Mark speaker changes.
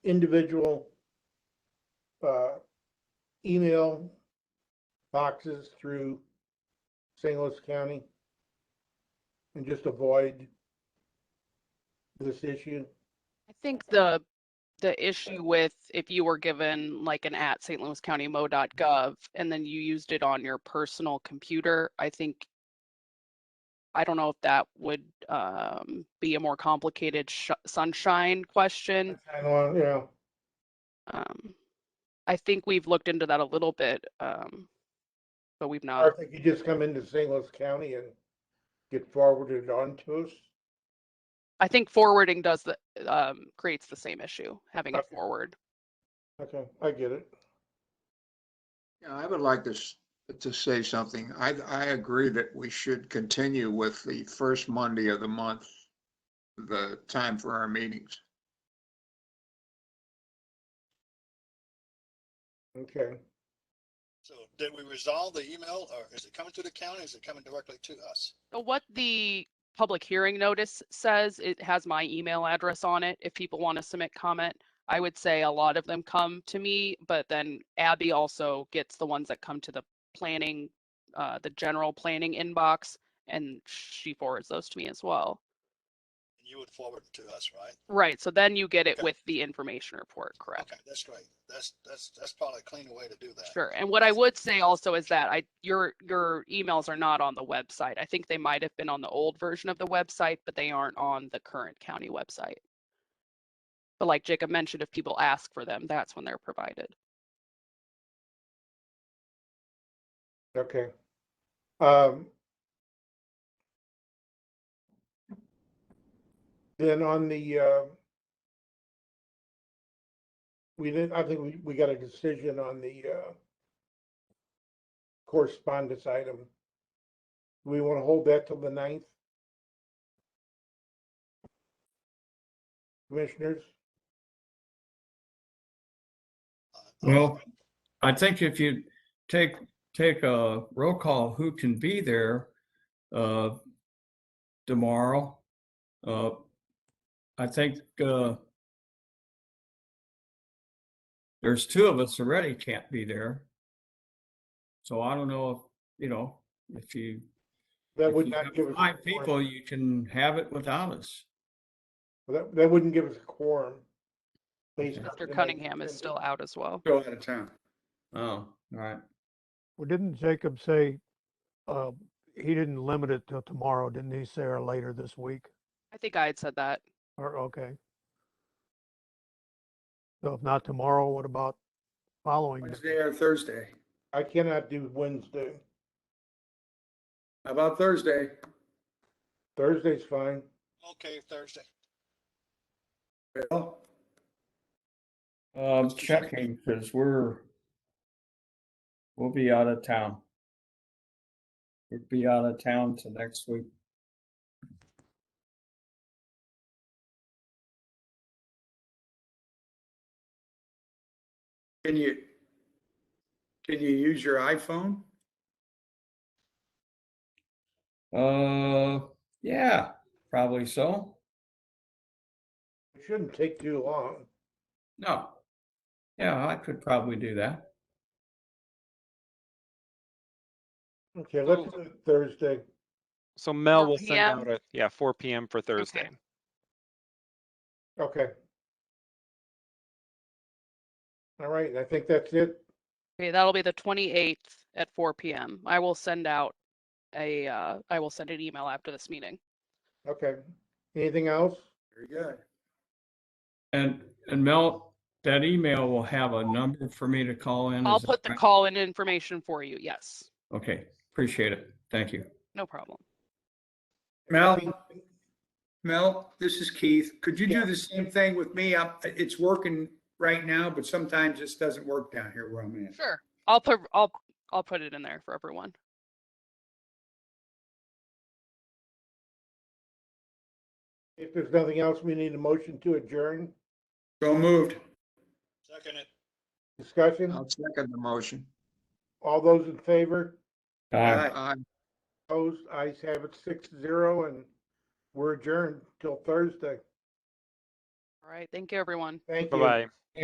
Speaker 1: individual uh, email boxes through St. Louis County and just avoid this issue?
Speaker 2: I think the, the issue with if you were given like an at St. Louis County mo.gov and then you used it on your personal computer, I think, I don't know if that would um, be a more complicated sh- sunshine question.
Speaker 1: I don't, uh, you know,
Speaker 2: Um, I think we've looked into that a little bit, um, but we've
Speaker 1: or
Speaker 2: not.
Speaker 1: if it could just come into St. Louis County and get forwarded on to us.
Speaker 2: I think forwarding does the, um, creates the same issue, having it
Speaker 1: Okay.
Speaker 2: forward.
Speaker 1: Okay, I get it.
Speaker 3: Yeah, I would like to, s- to say something. I, I agree that we should continue with the first Monday of the month, the time for our meetings.
Speaker 1: Okay.
Speaker 4: So did we resolve the email or is it coming to the county? Is it coming directly to us?
Speaker 2: So What the public hearing notice says, it has my email address on it. If people want to submit comment, I would say a lot of them come to me, but then Abby also gets the ones that come to the planning, uh, the general planning inbox, and she forwards those to me as well.
Speaker 4: And you would forward it to us, right?
Speaker 2: Right, so then you get it
Speaker 4: Okay.
Speaker 2: with the information report, correct?
Speaker 4: Okay, that's great. That's, that's, that's probably a cleaner way to do that.
Speaker 2: Sure, and what I would say also is that I, your, your emails are not on the website. I think they might have been on the old version of the website, but they aren't on the current county website. But like Jacob mentioned, if people ask for them, that's when they're provided.
Speaker 1: Okay. Um. Then on the, uh, we didn't, I think we, we got a decision on the, uh, correspondence item. We want to hold that till the ninth? Commissioners,
Speaker 4: Uh,
Speaker 5: Well, I think if you take, take a roll call, who can be there, uh, tomorrow? Uh, I think, uh, there's two of us already can't be there. So I don't know, if you know, if you.
Speaker 1: that
Speaker 5: if
Speaker 1: would
Speaker 5: you
Speaker 1: not
Speaker 5: have
Speaker 1: give us. a
Speaker 5: Five
Speaker 1: quorum.
Speaker 5: people, you can have it without us.
Speaker 1: That, that wouldn't give us a quorum. based on
Speaker 2: Mr.
Speaker 1: tonight's
Speaker 2: Cunningham is
Speaker 1: agenda.
Speaker 2: still out as well.
Speaker 5: Go out of town. Oh, all right.
Speaker 6: Well, didn't Jacob say, uh, he didn't limit it till tomorrow, didn't he say, or later this week?
Speaker 2: I think I had said that.
Speaker 6: Or, okay. So if not tomorrow, what about following? day?
Speaker 7: Wednesday or Thursday?
Speaker 1: I cannot do Wednesday.
Speaker 7: How about Thursday?
Speaker 1: Thursday's fine.
Speaker 4: Okay, Thursday.
Speaker 7: Bill?
Speaker 5: Um, checking, because we're, we'll be out of town. We'll be out of town to next week.
Speaker 7: Can you, can you use your iPhone?
Speaker 5: Uh, yeah, probably so.
Speaker 1: It shouldn't take too long.
Speaker 5: No. Yeah, I could probably do that.
Speaker 1: Okay, let's do it Thursday.
Speaker 8: So Mel
Speaker 2: 4
Speaker 8: will send
Speaker 2: PM?
Speaker 8: out a, yeah, four PM for Thursday.
Speaker 1: Okay. All right, I think that's it.
Speaker 2: Okay, that'll be the 28th at 4 PM. I will send out a, uh, I will send an email after this meeting.
Speaker 1: Okay. Anything else?
Speaker 7: Very good.
Speaker 5: And, and Mel, that email will have a number for me to call in.
Speaker 2: I'll
Speaker 5: is that
Speaker 2: put the
Speaker 5: right?
Speaker 2: call in information for you. Yes,
Speaker 5: Okay, appreciate it. Thank you.
Speaker 2: no problem.
Speaker 7: Mel, Mel, this is Keith. Could you do the same thing with me? I'm- It's working right now, but sometimes this doesn't work down here where I'm at.
Speaker 2: Sure. I'll put, I'll, I'll put it in there for everyone.
Speaker 1: If there's nothing else, we need a motion to adjourn.
Speaker 7: So moved.
Speaker 4: Second it.
Speaker 1: Discussion?
Speaker 3: I'll second the motion.
Speaker 1: All those in favor?
Speaker 5: Bye.
Speaker 3: Aye.
Speaker 1: Opposed? Eyes have it six zero and we're adjourned till Thursday.
Speaker 2: All right. Thank you, everyone.
Speaker 1: Thank you.
Speaker 8: Bye-bye.